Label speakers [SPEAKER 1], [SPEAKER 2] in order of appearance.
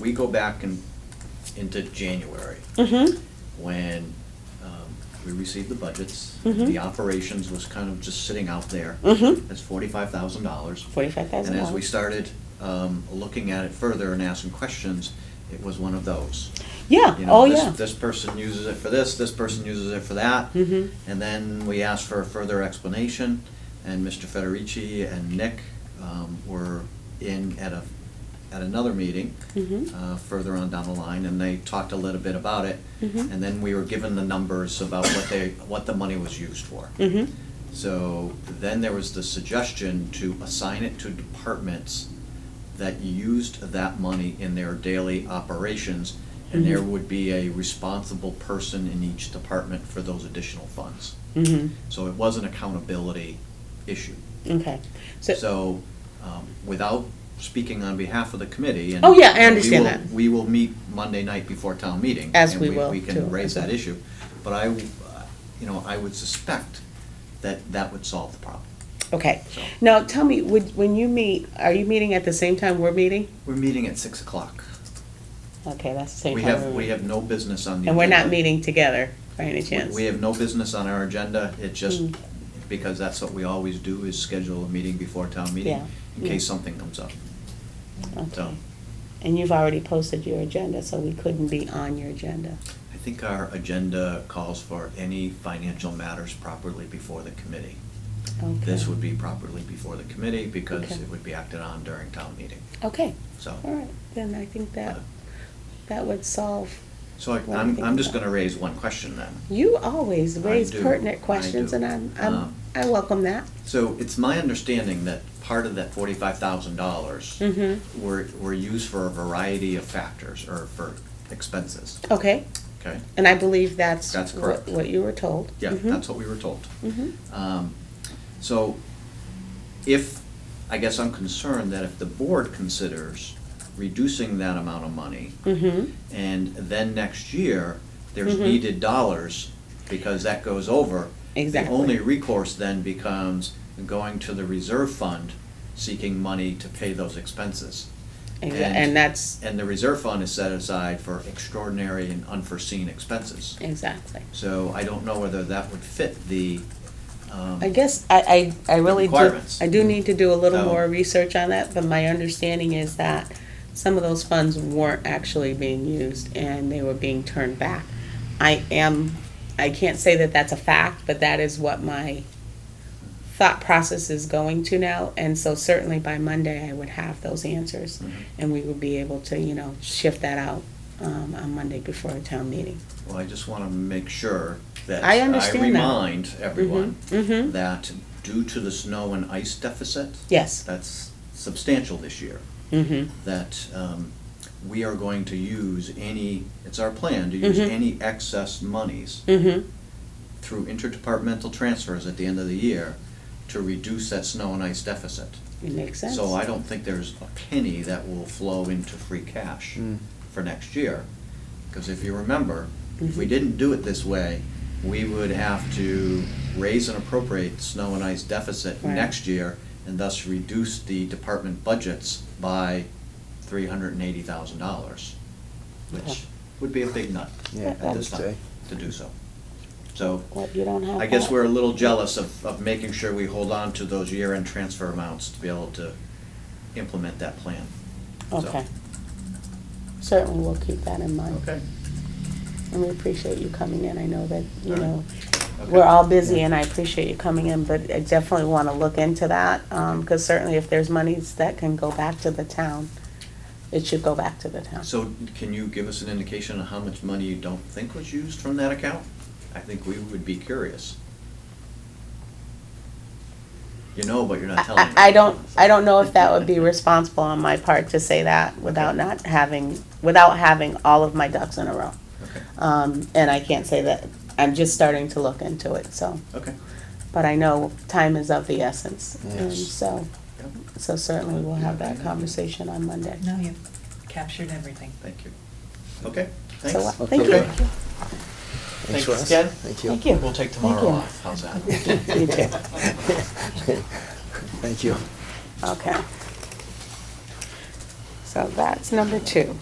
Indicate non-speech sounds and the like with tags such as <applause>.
[SPEAKER 1] we go back and into January,
[SPEAKER 2] Mm-hmm.
[SPEAKER 1] when um, we received the budgets.
[SPEAKER 2] Mhm.
[SPEAKER 1] The operations was kind of just sitting out there.
[SPEAKER 2] Mhm.
[SPEAKER 1] That's forty-five thousand dollars.
[SPEAKER 2] Forty-five thousand
[SPEAKER 1] And
[SPEAKER 2] dollars.
[SPEAKER 1] as we started um, looking at it further and asking questions, it was one of those.
[SPEAKER 2] Yeah.
[SPEAKER 1] You know,
[SPEAKER 2] oh,
[SPEAKER 1] this-
[SPEAKER 2] yeah.
[SPEAKER 1] This person uses it for this, this person uses it for that.
[SPEAKER 2] Mhm.
[SPEAKER 1] And then we asked for a further explanation, and Mr. Federici and Nick um, were in at a, at another meeting
[SPEAKER 2] Mhm.
[SPEAKER 1] uh, further on down the line, and they talked a little bit about it.
[SPEAKER 2] Mhm.
[SPEAKER 1] And then we were given the numbers about what they, what the money was used for.
[SPEAKER 2] Mhm.
[SPEAKER 1] So then there was the suggestion to assign it to departments that used that money in their daily operations, and there
[SPEAKER 2] Mhm.
[SPEAKER 1] would be a responsible person in each department for those additional funds.
[SPEAKER 2] Mhm.
[SPEAKER 1] So it was an accountability issue.
[SPEAKER 2] Okay. So,
[SPEAKER 1] So, um, without speaking on behalf of the committee, and.
[SPEAKER 2] Oh, yeah, I
[SPEAKER 1] we
[SPEAKER 2] understand
[SPEAKER 1] will-
[SPEAKER 2] that.
[SPEAKER 1] We will meet Monday night before town meeting.
[SPEAKER 2] As
[SPEAKER 1] and
[SPEAKER 2] we will,
[SPEAKER 1] We
[SPEAKER 2] too,
[SPEAKER 1] can raise
[SPEAKER 2] as well.
[SPEAKER 1] that issue, but I, w- uh, you know, I would suspect that that would solve the problem.
[SPEAKER 2] okay.
[SPEAKER 1] So-
[SPEAKER 2] Now, tell me, would, when you meet, are you meeting at the same time we're meeting?
[SPEAKER 1] We're meeting at six o'clock.
[SPEAKER 2] Okay, that's the same
[SPEAKER 1] We
[SPEAKER 2] time.
[SPEAKER 1] have,
[SPEAKER 2] we're
[SPEAKER 1] we
[SPEAKER 2] meeting.
[SPEAKER 1] have no business on the.
[SPEAKER 2] And we're not
[SPEAKER 1] agenda.
[SPEAKER 2] meeting together by any
[SPEAKER 1] We-
[SPEAKER 2] chance.
[SPEAKER 1] We have no business on our agenda, it just,
[SPEAKER 2] Mm.
[SPEAKER 1] because that's what we always do, is schedule a meeting before town meeting,
[SPEAKER 2] Yeah,
[SPEAKER 1] in
[SPEAKER 2] yeah.
[SPEAKER 1] case something comes up.
[SPEAKER 2] Okay.
[SPEAKER 1] so-
[SPEAKER 2] And you've already posted your agenda, so we couldn't be on your agenda.
[SPEAKER 1] I think our agenda calls for any financial matters properly before the committee.
[SPEAKER 2] Okay.
[SPEAKER 1] This would be properly before the committee because
[SPEAKER 2] Okay.
[SPEAKER 1] it would be acted on during town meeting,
[SPEAKER 2] Okay.
[SPEAKER 1] so.
[SPEAKER 2] All right. Then I think that
[SPEAKER 1] uh,
[SPEAKER 2] that would solve.
[SPEAKER 1] So I-
[SPEAKER 2] What do you
[SPEAKER 1] I'm,
[SPEAKER 2] think
[SPEAKER 1] I'm just
[SPEAKER 2] about-
[SPEAKER 1] gonna raise one question then.
[SPEAKER 2] You always
[SPEAKER 1] I
[SPEAKER 2] raise
[SPEAKER 1] do,
[SPEAKER 2] pertinent
[SPEAKER 1] I
[SPEAKER 2] questions,
[SPEAKER 1] do.
[SPEAKER 2] and I'm, I'm
[SPEAKER 1] Um,
[SPEAKER 2] I welcome that.
[SPEAKER 1] So it's my understanding that part of that forty-five thousand dollars
[SPEAKER 2] Mhm.
[SPEAKER 1] were, were used for a variety of factors or for expenses,
[SPEAKER 2] Okay.
[SPEAKER 1] okay?
[SPEAKER 2] And I Mm-hmm. believe that's.
[SPEAKER 1] That's
[SPEAKER 2] wha-
[SPEAKER 1] correct.
[SPEAKER 2] What you were told.
[SPEAKER 1] Yeah, that's what we were told.
[SPEAKER 2] hmm
[SPEAKER 1] Um, So if, I guess I'm concerned that if the board considers reducing that amount of money,
[SPEAKER 2] hmm
[SPEAKER 1] and then next year, there's
[SPEAKER 2] Mhm.
[SPEAKER 1] needed dollars, because that goes over.
[SPEAKER 2] Exactly.
[SPEAKER 1] The only recourse then becomes going to the reserve fund, seeking money to pay those expenses.
[SPEAKER 2] And, and that's,
[SPEAKER 1] And the reserve fund is set aside for extraordinary and unforeseen expenses.
[SPEAKER 2] exactly.
[SPEAKER 1] So I don't know whether that would fit the, um.
[SPEAKER 2] I guess I, I, I really do,
[SPEAKER 1] requirements.
[SPEAKER 2] I do need to do a little
[SPEAKER 1] So-
[SPEAKER 2] more research on that, but my understanding is that some of those funds weren't actually being used and they were being turned back. I am, I can't say that that's a fact, but that is what my thought process is going to now. And so certainly by Monday, I would have those answers
[SPEAKER 1] Mhm.
[SPEAKER 2] and we would be able to, you know, shift that out, um, on Monday before a town meeting.
[SPEAKER 1] Well, I just want to make sure that
[SPEAKER 2] I understand that.
[SPEAKER 1] remind everyone
[SPEAKER 2] mhm.
[SPEAKER 1] that due to the snow and ice deficit
[SPEAKER 2] Yes.
[SPEAKER 1] that's substantial this year,
[SPEAKER 2] Mm-hmm.
[SPEAKER 1] that um, we are going to use any, it's our plan to use
[SPEAKER 2] Mhm.
[SPEAKER 1] any excess monies
[SPEAKER 2] Mm-hmm.
[SPEAKER 1] through interdepartmental transfers at the end of the year to reduce that snow and ice deficit.
[SPEAKER 2] It makes sense.
[SPEAKER 1] So I don't think there's a penny that will flow into free cash for next year. Because if you remember, if we
[SPEAKER 2] Mhm.
[SPEAKER 1] didn't do it this way, we would have to raise and appropriate snow and ice deficit
[SPEAKER 2] Right.
[SPEAKER 1] next year and thus reduce the department budgets by three hundred and eighty thousand dollars,
[SPEAKER 2] Okay.
[SPEAKER 1] which would be a big nut
[SPEAKER 2] Yeah,
[SPEAKER 1] at this
[SPEAKER 2] I
[SPEAKER 1] time to do so. So
[SPEAKER 2] Well, you don't have
[SPEAKER 1] I guess
[SPEAKER 2] that.
[SPEAKER 1] we're a little jealous of, of making sure we hold on to those year-end transfer amounts to be able to implement that plan. So,
[SPEAKER 2] Okay. Certainly, we'll keep that in mind.
[SPEAKER 1] Okay.
[SPEAKER 2] And we appreciate you coming in. I know that, you
[SPEAKER 1] All right.
[SPEAKER 2] know,
[SPEAKER 1] Okay.
[SPEAKER 2] we're all busy and I appreciate you coming in, but I definitely want to look into that. Because certainly if there's monies that can go back to the town, it should go back to the town.
[SPEAKER 1] So can you give us an indication of how much money you don't think was used from that account? I think we would be curious. You know, but you're not telling
[SPEAKER 2] I,
[SPEAKER 1] me.
[SPEAKER 2] I I don't, I don't know if that
[SPEAKER 1] <laughs>
[SPEAKER 2] would be responsible on my part to say that without not having, without having all of my ducks in a row.
[SPEAKER 1] Okay,
[SPEAKER 2] Um, And I can't say that. I'm just starting to look into it, so.
[SPEAKER 1] okay.
[SPEAKER 2] but I know time is of the essence. And
[SPEAKER 1] Yes.
[SPEAKER 2] so,
[SPEAKER 1] Yeah,
[SPEAKER 2] so certainly we'll have that conversation on Monday.
[SPEAKER 3] No, you've captured everything.
[SPEAKER 1] Thank you. Okay,
[SPEAKER 2] So,
[SPEAKER 1] thanks.
[SPEAKER 2] uh, Thank you.
[SPEAKER 1] Okay.
[SPEAKER 4] Thanks,
[SPEAKER 1] Thanks
[SPEAKER 4] Russ.
[SPEAKER 1] again.
[SPEAKER 4] Thank you.
[SPEAKER 2] Thank you.
[SPEAKER 1] We'll take tomorrow
[SPEAKER 2] you.
[SPEAKER 1] off, how's that?
[SPEAKER 2] You <laughs> too.
[SPEAKER 4] <laughs>
[SPEAKER 1] <laughs>
[SPEAKER 4] Thank you.
[SPEAKER 2] Okay. So that's number two.